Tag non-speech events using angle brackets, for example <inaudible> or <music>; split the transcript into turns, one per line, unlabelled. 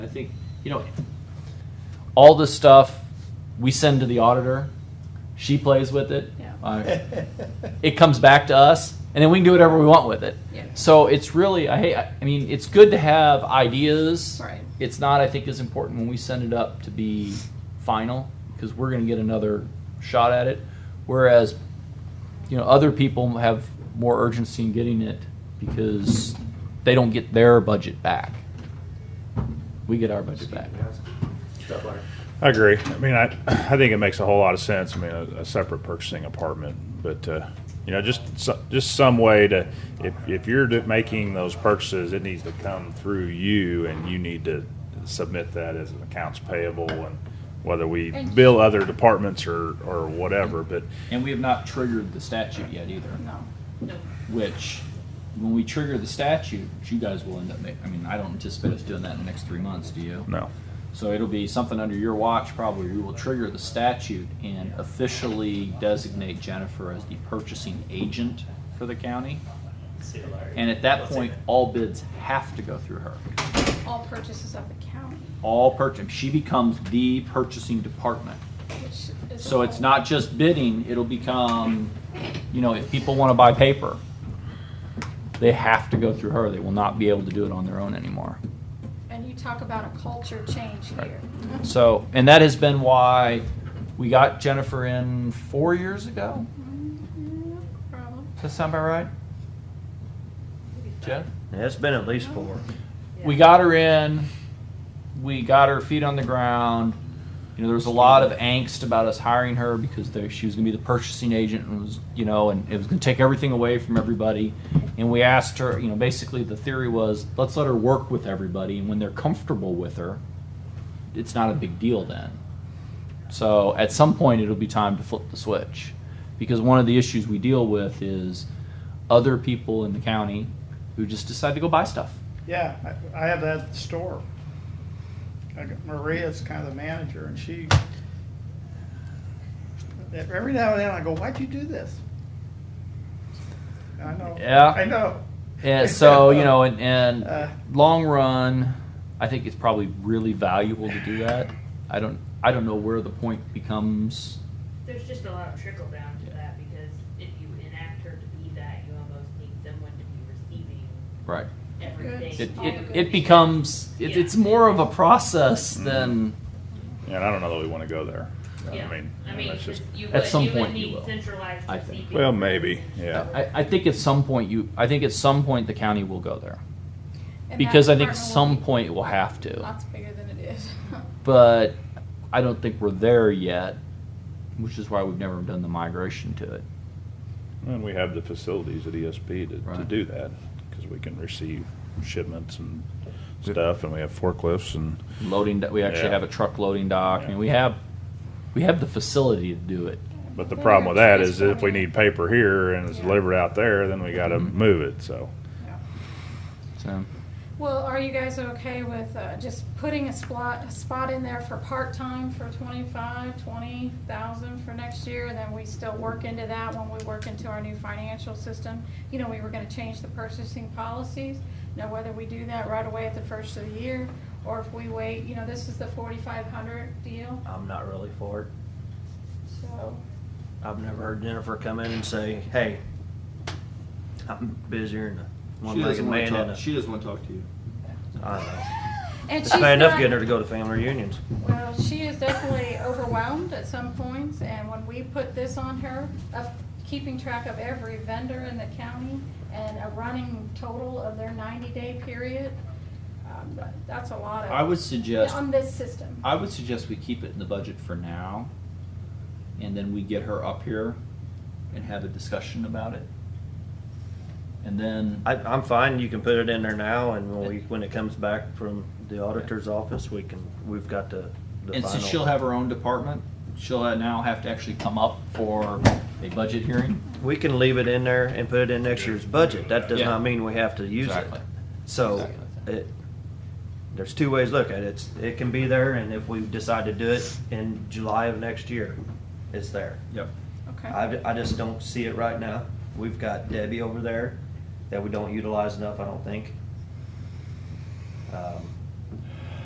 I think, you know, all this stuff we send to the auditor, she plays with it.
Yeah.
Uh, it comes back to us, and then we can do whatever we want with it.
Yeah.
So it's really, I hate, I mean, it's good to have ideas.
Right.
It's not, I think, as important when we send it up to be final because we're going to get another shot at it. Whereas, you know, other people have more urgency in getting it because they don't get their budget back. We get our budget back.
I agree. I mean, I, I think it makes a whole lot of sense. I mean, a, a separate purchasing department, but, uh, you know, just, so- just some way to, if, if you're do- making those purchases, it needs to come through you and you need to submit that as an accounts payable and whether we
And-
bill other departments or, or whatever, but
And we have not triggered the statute yet either.
No.
which when we trigger the statute, which you guys will end up making, I mean, I don't anticipate us doing that in the next three months, do you?
no.
So it'll be something under your watch probably. We will trigger the statute and officially designate Jennifer as the purchasing agent for the county. And at that point, all bids have to go through her.
All purchases of the county,
All purchase, she becomes the purchasing department.
which is.
So it's not just bidding, it'll become, you know, if people want to buy paper, they have to go through her. They will not be able to do it on their own anymore.
And you talk about a culture change here.
So, and that has been why we got Jennifer in four years ago.
Problem.
Does that sound about right? Jeff?
Yeah, It's been at least four.
We got her in, we got her feet on the ground. You know, there was a lot of angst about us hiring her because there, she was going to be the purchasing agent and was, you know, and it was going to take everything away from everybody. And we asked her, you know, basically the theory was let's let her work with everybody, and when they're comfortable with her, it's not a big deal then. So at some point, it'll be time to flip the switch. Because one of the issues we deal with is other people in the county who just decide to go buy stuff.
Yeah, I, I have that at the store. I got- Maria's kind of the manager and she, every now and then I go, why'd you do this? I know.
Yeah.
I know.
And so, you know, and, and
Uh.
long run, I think it's probably really valuable to do that. I don't, I don't know where the point becomes.
There's just a lot of trickle down to that because if you enact her to be that, you almost need someone to be receiving
Right.
everything.
It,
all the
it,
good
it
things.
becomes, it,
Yeah.
it's more of a process than,
And I don't know that we want to go there.
Yeah.
I mean,
I mean,
that's just,
you
At
would,
some
you would
point you
need
will,
centralized
I think.
receiving.
well, maybe, yeah.
I, I think at some point you, I think at some point the county will go there.
And that
Because I think
department will
some
be
point it will have to.
Lots bigger than it is. <laughs>
But I don't think we're there yet, which is why we've never done the migration to it.
And we have the facilities at ESP to, to
Right.
do that, because we can receive shipments and stuff, and we have forklifts and,
Loading, do- we actually
Yeah.
have a truck loading dock. I mean,
Yeah.
we have, we have the facility to do it.
but the
They're
problem with that is if we
transforming.
need paper here and it's
Yeah.
delivered out there, then we gotta
Mhm.
move it, so.
Yeah.
So.
Well, are you guys okay with uh, just putting a spot, a spot in there for part-time for twenty-five, twenty thousand for next year? And then we still work into that when we work into our new financial system? You know, we were gonna change the purchasing policies. Now, whether we do that right away at the first of the year, or if we wait, you know, this is the forty-five hundred deal,
I'm not really for it.
so.
I've never heard Jennifer come in and say, hey, I'm busier than a one-legged man in a.
She doesn't want to talk to you.
I don't know.
<laughs> And
It's
she's
bad enough
not-
getting her to go to family reunions.
Well, she is definitely overwhelmed at some points, and when we put this on her, of keeping track of every vendor in the county and a running total of their ninety-day period, um, that- that's a lot of.
I would suggest-
On this system.
I would suggest we keep it in the budget for now, and then we get her up here and have a discussion about it. And then,
I, I'm fine, you can put it in there now, and when we, when it comes back from the auditor's office, we can, we've got the, the
and
final.
since she'll have her own department, she'll now have to actually come up for a budget hearing.
We can leave it in there and put it in next year's budget. That does
Yeah.
not mean we have to use it.
Exactly.
So,
Exactly.
it, there's two ways to look at it. It's, it can be there, and if we decide to do it in July of next year, it's there.
Yep.
Okay,
I, I just don't see it right now. We've got Debbie over there that we don't utilize enough, I don't think. Um,